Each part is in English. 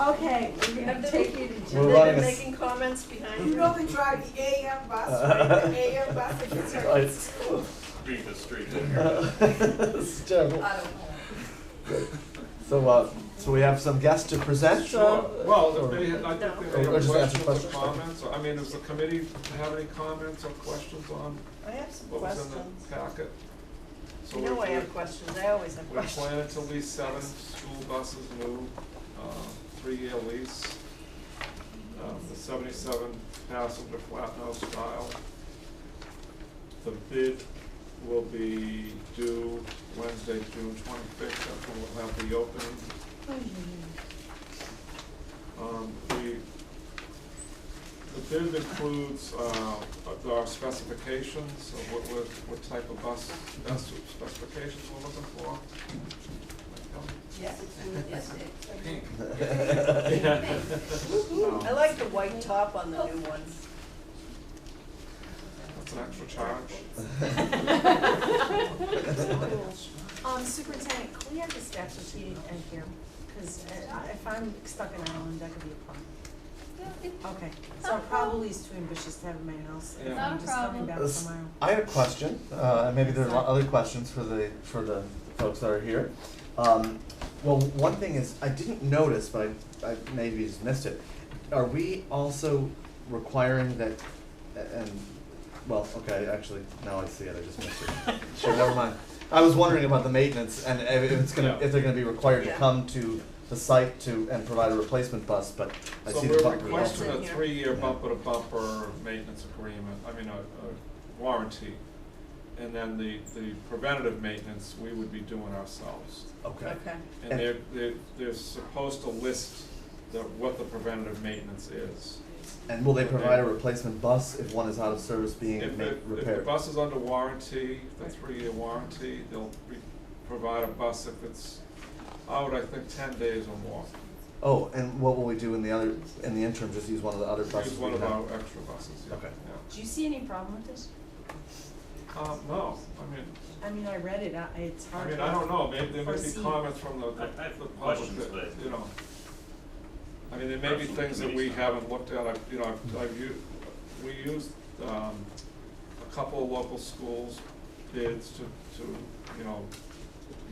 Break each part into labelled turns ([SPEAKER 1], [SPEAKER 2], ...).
[SPEAKER 1] Okay, we're gonna take you to,
[SPEAKER 2] We're running a
[SPEAKER 1] they've been
[SPEAKER 2] s-
[SPEAKER 1] making comments behind
[SPEAKER 3] You
[SPEAKER 1] you.
[SPEAKER 3] know they drive the AM bus, right? The AM bus that gets her
[SPEAKER 2] Right.
[SPEAKER 3] to school.
[SPEAKER 4] Beat the street.
[SPEAKER 2] It's terrible.
[SPEAKER 3] I don't know.
[SPEAKER 2] So, uh, so we have some guests to present? uh,
[SPEAKER 4] Sure. Well,
[SPEAKER 2] or-
[SPEAKER 4] if they, I think
[SPEAKER 2] Or-
[SPEAKER 4] they
[SPEAKER 2] or
[SPEAKER 4] have
[SPEAKER 2] just answer
[SPEAKER 4] questions or
[SPEAKER 2] questions.
[SPEAKER 4] comments, I mean, does the committee have any comments or questions on
[SPEAKER 1] I have some
[SPEAKER 4] what was in the
[SPEAKER 1] questions.
[SPEAKER 4] packet? So
[SPEAKER 1] You know
[SPEAKER 4] we-
[SPEAKER 1] I have questions, I always have
[SPEAKER 4] We
[SPEAKER 1] questions.
[SPEAKER 4] plan to lease seven school buses new, uh, three-year lease. Um, the seventy-seven passenger flat nose style. The bid will be due Wednesday, June twenty-fifth, that's when we'll have the opening.
[SPEAKER 1] Mm-hmm.
[SPEAKER 4] Um, we, the bid includes, uh, our specifications of what, what, what type of bus, bus specifications we're looking for.
[SPEAKER 1] Yes,
[SPEAKER 5] Yes, it-
[SPEAKER 4] Pink.
[SPEAKER 1] I like the white top on the new ones.
[SPEAKER 4] That's an extra charge.
[SPEAKER 1] Um, superintendent, can we have the staff to sheet in here? Because if I'm stuck in Ireland, that could be a problem. Okay, so probably it's too ambitious to have in my house if
[SPEAKER 4] Yeah.
[SPEAKER 1] I'm just coming
[SPEAKER 5] Not a problem.
[SPEAKER 1] back
[SPEAKER 2] This-
[SPEAKER 1] from Ireland.
[SPEAKER 2] I had a question, uh, and maybe there are other questions for the, for the folks that are here. Um, well, one thing is, I didn't notice, but I, I maybe just missed it. Are we also requiring that, a- and, well, okay, actually, now I see it, I just missed it. Sure, never mind. I was wondering about the maintenance and if if it's gonna,
[SPEAKER 4] Yeah.
[SPEAKER 2] if they're gonna be required to
[SPEAKER 1] Yeah.
[SPEAKER 2] come to the site to, and provide a replacement bus, but I
[SPEAKER 4] So
[SPEAKER 2] see the
[SPEAKER 4] we're
[SPEAKER 2] bumper.
[SPEAKER 4] requesting
[SPEAKER 1] That's
[SPEAKER 4] a
[SPEAKER 1] in here.
[SPEAKER 4] three-year
[SPEAKER 2] Yeah.
[SPEAKER 4] bumper-to-bumper maintenance agreement, I mean, a, a warranty. And then the, the preventative maintenance, we would be doing ourselves.
[SPEAKER 2] Okay.
[SPEAKER 4] And they're, they're, they're supposed to list the, what the preventative maintenance is.
[SPEAKER 2] And will they provide a replacement bus if one is out of service being
[SPEAKER 4] If,
[SPEAKER 2] ma-
[SPEAKER 4] the- if the
[SPEAKER 2] repaired?
[SPEAKER 4] bus is under warranty, the three-year warranty, they'll re- provide a bus if it's out, I think, ten days or more.
[SPEAKER 2] Oh, and what will we do in the other, in the interim, just use one of the other buses
[SPEAKER 4] Use
[SPEAKER 2] we
[SPEAKER 4] one of
[SPEAKER 2] have?
[SPEAKER 4] our extra buses, yeah,
[SPEAKER 2] Okay.
[SPEAKER 4] yeah.
[SPEAKER 1] Do you see any problem with this?
[SPEAKER 4] Um, no, I mean,
[SPEAKER 1] I mean, I read it, I, it's
[SPEAKER 4] I
[SPEAKER 1] hard.
[SPEAKER 4] mean,
[SPEAKER 1] to-
[SPEAKER 4] I don't know, maybe there may be
[SPEAKER 1] Proceed.
[SPEAKER 4] comments from the, the
[SPEAKER 6] I- I have
[SPEAKER 4] the public
[SPEAKER 6] questions,
[SPEAKER 4] that,
[SPEAKER 6] but-
[SPEAKER 4] you know. I mean, there may be
[SPEAKER 6] Perhaps
[SPEAKER 4] things that we
[SPEAKER 6] committee's not-
[SPEAKER 4] haven't looked at, I've, you know, I've, I've u- we used, um, a couple of local schools bids to, to, you know,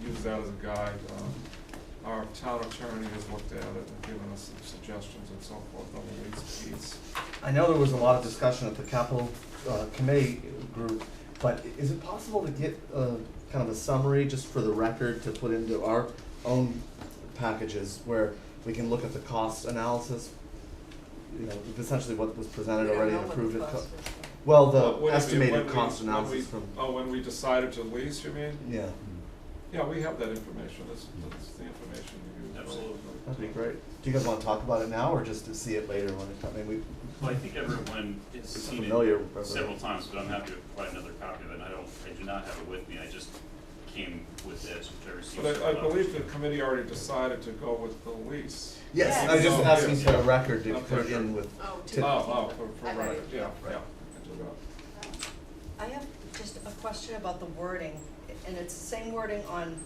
[SPEAKER 4] use that as a guide. Um, Our town attorney has looked at it and given us some suggestions and so forth on the lease piece.
[SPEAKER 2] I know there was a lot of discussion at the capital, uh, committee group, but i- is it possible to get, uh, kind of a summary just for the record to put into our own packages where we can look at the cost analysis? You know, essentially what was presented already and approved at co- well,
[SPEAKER 4] What-
[SPEAKER 2] the
[SPEAKER 4] what do you mean, when
[SPEAKER 2] estimated
[SPEAKER 4] we-
[SPEAKER 2] cost
[SPEAKER 4] when we-
[SPEAKER 2] analysis from,
[SPEAKER 4] Oh, when we decided to lease, you mean?
[SPEAKER 2] yeah,
[SPEAKER 4] Yeah, we have that information, that's, that's the information you use.
[SPEAKER 6] Absolutely.
[SPEAKER 2] that'd be great. Do you guys wanna talk about it now or just to see it later when it comes, I mean, we,
[SPEAKER 6] Well, I think everyone has
[SPEAKER 2] It's
[SPEAKER 6] seen
[SPEAKER 2] familiar, but-
[SPEAKER 6] it several times, but I'm happy to provide another copy of it. I don't, I do not have it with me. I just came with this, which I received. uh,
[SPEAKER 4] But I, I
[SPEAKER 6] several
[SPEAKER 4] believe the
[SPEAKER 6] times.
[SPEAKER 4] committee already decided to go with the lease.
[SPEAKER 2] Yes, I was just
[SPEAKER 4] Yes.
[SPEAKER 2] asking for a record to
[SPEAKER 4] Okay,
[SPEAKER 2] put it in
[SPEAKER 4] sure.
[SPEAKER 2] with.
[SPEAKER 5] Oh,
[SPEAKER 2] to-
[SPEAKER 4] Oh, oh, for,
[SPEAKER 5] I got
[SPEAKER 4] for, right,
[SPEAKER 5] it.
[SPEAKER 4] yeah,
[SPEAKER 2] Right.
[SPEAKER 4] yeah. I do that.
[SPEAKER 1] I have just a question about the wording, and it's the same wording on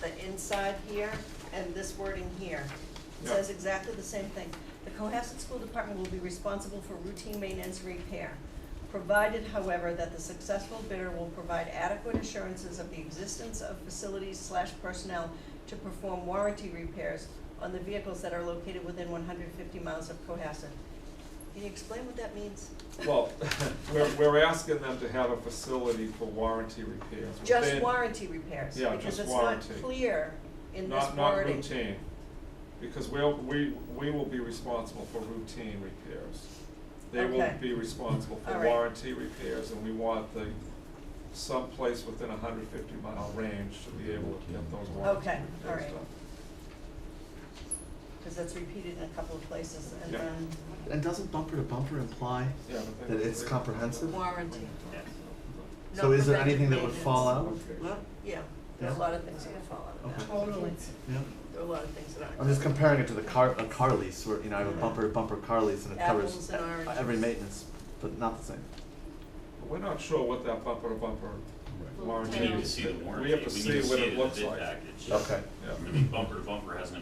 [SPEAKER 1] the inside here and this wording here. It
[SPEAKER 4] Yeah.
[SPEAKER 1] says exactly the same thing. The Cohasset School Department will be responsible for routine maintenance and repair, provided however that the successful bidder will provide adequate assurances of the existence of facilities slash personnel to perform warranty repairs on the vehicles that are located within one hundred fifty miles of Cohasset. Can you explain what that means?
[SPEAKER 4] Well, we're, we're asking them to have a facility for warranty repairs.
[SPEAKER 1] Just
[SPEAKER 4] within-
[SPEAKER 1] warranty repairs,
[SPEAKER 4] Yeah,
[SPEAKER 1] because
[SPEAKER 4] just
[SPEAKER 1] it's not
[SPEAKER 4] warranty.
[SPEAKER 1] clear in this
[SPEAKER 4] Not, not
[SPEAKER 1] wording.
[SPEAKER 4] routine, because we'll, we, we will be responsible for routine repairs. They will
[SPEAKER 1] Okay.
[SPEAKER 4] be responsible
[SPEAKER 1] All
[SPEAKER 4] for
[SPEAKER 1] right.
[SPEAKER 4] warranty repairs, and we want the, someplace within a hundred fifty mile range to be able to get those warranty
[SPEAKER 1] Okay,
[SPEAKER 4] repairs
[SPEAKER 1] all right.
[SPEAKER 4] done.
[SPEAKER 1] Because that's repeated in a couple of places, and
[SPEAKER 4] Yeah.
[SPEAKER 1] then
[SPEAKER 2] And doesn't bumper to bumper imply?
[SPEAKER 4] Yeah, but they
[SPEAKER 2] That
[SPEAKER 4] don't-
[SPEAKER 2] it's
[SPEAKER 4] they-
[SPEAKER 2] comprehensive?
[SPEAKER 1] warranty.
[SPEAKER 6] Yes.
[SPEAKER 2] So is there anything that would fall out?
[SPEAKER 1] Yeah, there are a
[SPEAKER 2] Yeah.
[SPEAKER 1] lot of things that would fall out of that.
[SPEAKER 2] Okay.
[SPEAKER 3] Totally.
[SPEAKER 2] Yeah.
[SPEAKER 1] There are a lot of things that aren't.
[SPEAKER 2] I'm just comparing it to the car, uh, a car lease, where, you know, I have a bumper to bumper car lease and it
[SPEAKER 1] Apples
[SPEAKER 2] covers
[SPEAKER 1] and
[SPEAKER 2] e-
[SPEAKER 1] oranges.
[SPEAKER 2] every maintenance, but not the same.
[SPEAKER 4] But We're not sure what that bumper to bumper warranty
[SPEAKER 6] We
[SPEAKER 4] is.
[SPEAKER 6] need to see the warranty.
[SPEAKER 4] We have to
[SPEAKER 6] need
[SPEAKER 4] see what
[SPEAKER 6] see
[SPEAKER 4] it looks
[SPEAKER 6] in the
[SPEAKER 4] like.
[SPEAKER 6] bid package.
[SPEAKER 2] Okay.
[SPEAKER 4] Yeah.
[SPEAKER 6] I mean, bumper to bumper has an